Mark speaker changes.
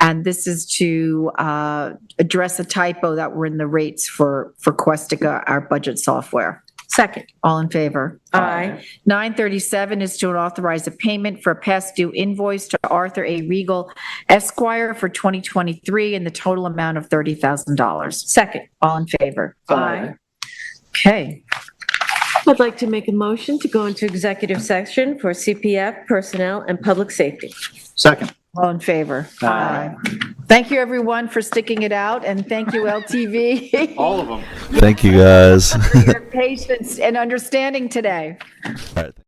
Speaker 1: And this is to uh, address a typo that were in the rates for, for Questica, our budget software.
Speaker 2: Second.
Speaker 1: All in favor?
Speaker 2: Aye.
Speaker 1: 937 is to authorize a payment for a past due invoice to Arthur A. Regal Esquire for 2023 in the total amount of $30,000.
Speaker 2: Second.
Speaker 1: All in favor?
Speaker 2: Aye.
Speaker 1: Okay.
Speaker 2: I'd like to make a motion to go into executive session for CPF, personnel, and public safety.
Speaker 3: Second.
Speaker 1: All in favor?
Speaker 3: Aye.
Speaker 1: Thank you, everyone, for sticking it out, and thank you, LTV.
Speaker 3: All of them.
Speaker 4: Thank you guys. All
Speaker 1: Your patience and understanding today.
Speaker 4: right.